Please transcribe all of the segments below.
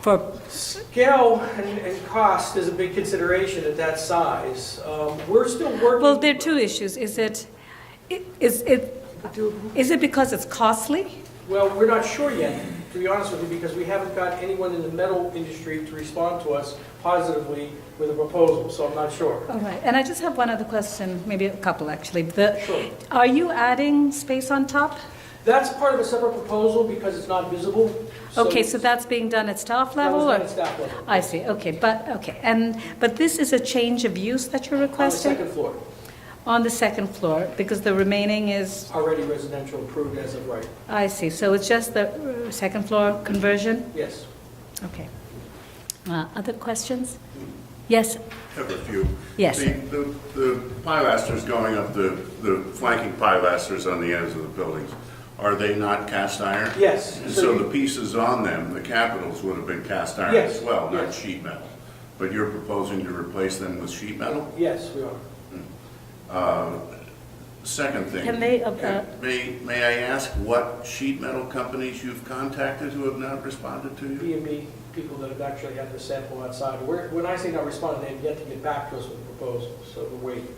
for, Scale and, and cost is a big consideration at that size. Um, We're still working. well, there are two issues. Is it, i- is it, is it because it's costly? Well, we're not sure yet, to be honest with you, because we haven't got anyone in the metal industry to respond to us positively with a proposal, so I'm not sure. All right, and I just have one other question, maybe a couple, actually. The, Sure. are you adding space on top? That's part of a separate proposal because it's not visible. Okay, so that's being done at staff level? That was or- done at staff level. I see, okay, but, okay, and, but this is a change of use that you're On the requesting? second floor, On the second floor, because the remaining is, already residential approved as of right. I see, so it's just the uh, second floor conversion? Yes. Okay. Uh, Other questions? Yes, Have a few. Yes. The, the- the pilasters going up, the, the flanking pilasters on the ends of the buildings, are they not cast iron? Yes. And So so you- the pieces on them, the capitals would have been cast iron Yes, as well, not yes. sheet metal. But you're proposing to replace them with sheet metal? Yes, we are. Second thing. Can they, uh, uh, May, may I ask what sheet metal companies you've contacted who have not responded to you? B and B people that have actually had their sample outside. We're- When I say not responding, they have yet to get back to us with a proposal, so we're waiting.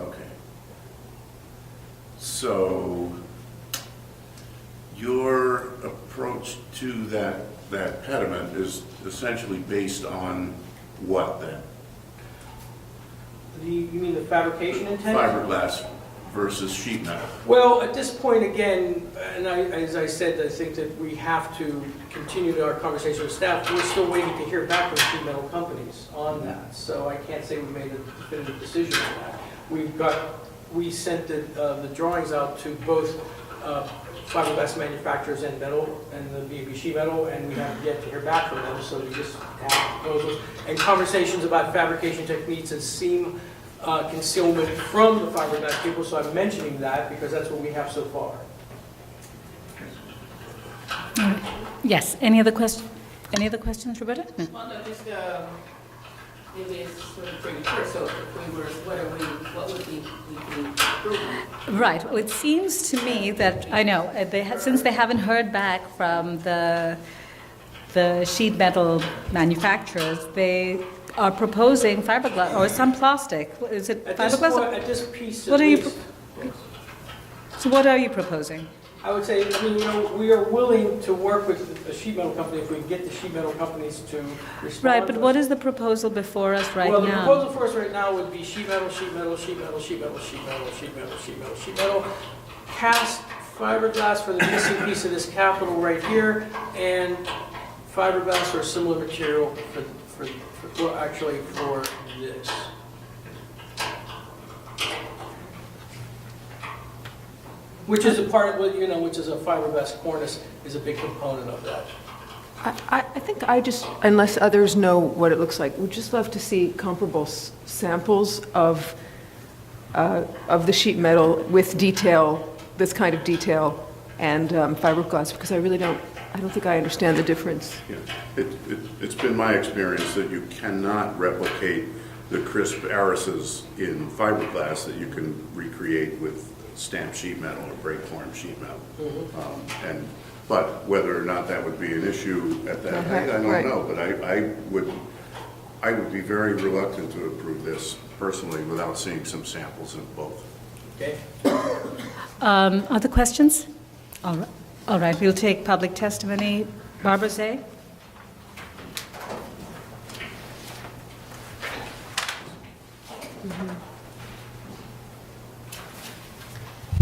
Okay. So your approach to that, that pediment is essentially based on what then? The- You mean the fabrication intent? Fiberglass versus sheet metal? Well, at this point, again, and I, as I said, I think that we have to continue our conversation with staff. We're still waiting to hear back from two metal companies on that, so I can't say we made a definitive decision on that. We've got, we sent the, uh, the drawings out to both uh, fiberglass manufacturers and metal, and the B and B sheet metal, and we have yet to hear back from them, so we just have proposals and conversations about fabrication techniques and seam uh, concealment from the fiberglass people, so I'm mentioning that because that's what we have so far. yes, any other question, any other questions, Roberta? Well, no, just, um, maybe it's sort of precursor, if we were, what are we, what would we, we be approving? Right, well, it seems to me that, I know, uh, they, ha- since they haven't heard back from the, the sheet metal manufacturers, they are proposing fiberglass, or some plastic, is it At this point, fiberglass? at this piece at What are you least, So what are you proposing? I would say, I mean, you know, we are willing to work with the sheet metal company if we can get the sheet metal companies to respond. Right, but to what us. is the proposal before us right Well, the now? proposal for us right now would be sheet metal, sheet metal, sheet metal, sheet metal, sheet metal, sheet metal, sheet metal, sheet metal, cast fiberglass for the missing piece of this capital right here, and fiberglass or a similar material for, for, for, well, actually for this. Which is a part of, what you know, which is a fiberglass cornice is a big component of that. I- I, I think I just, unless others know what it looks like, would just love to see comparable s- samples of, uh, of the sheet metal with detail, this kind of detail, and um, fiberglass, because I really don't, I don't think I understand the difference. Yeah. It, it, it's been my experience that you cannot replicate the crisp arises in fiberglass that you can recreate with stamped sheet metal or break form sheet metal. Um, And, but whether or not that would be an issue at that height, I don't Right. know. But I, I would, I would be very reluctant to approve this personally without seeing some samples of both. Okay? Um, Other questions? All ri- all right, we'll take public testimony. Barbara Zay?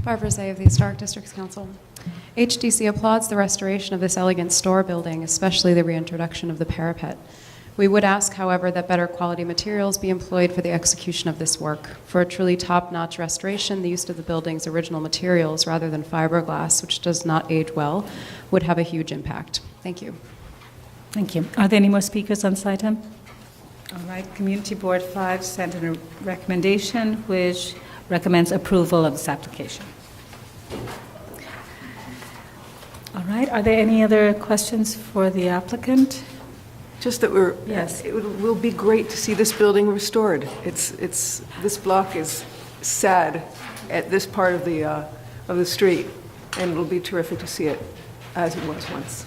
Barbara Zay of the Historic Districts Council. HDC applauds the restoration of this elegant store building, especially the reintroduction of the parapet. We would ask, however, that better quality materials be employed for the execution of this work. For a truly top-notch restoration, the use of the building's original materials rather than fiberglass, which does not age well, would have a huge impact. Thank you. Thank you. Are there any more speakers on this item? All right, Community Board 5 sent in a recommendation which recommends approval of this application. All right, are there any other questions for the applicant? Just that we're, Yes. it would- will be great to see this building restored. It's, it's, this block is sad at this part of the, uh, of the street, and it'll be terrific to see it as it was once.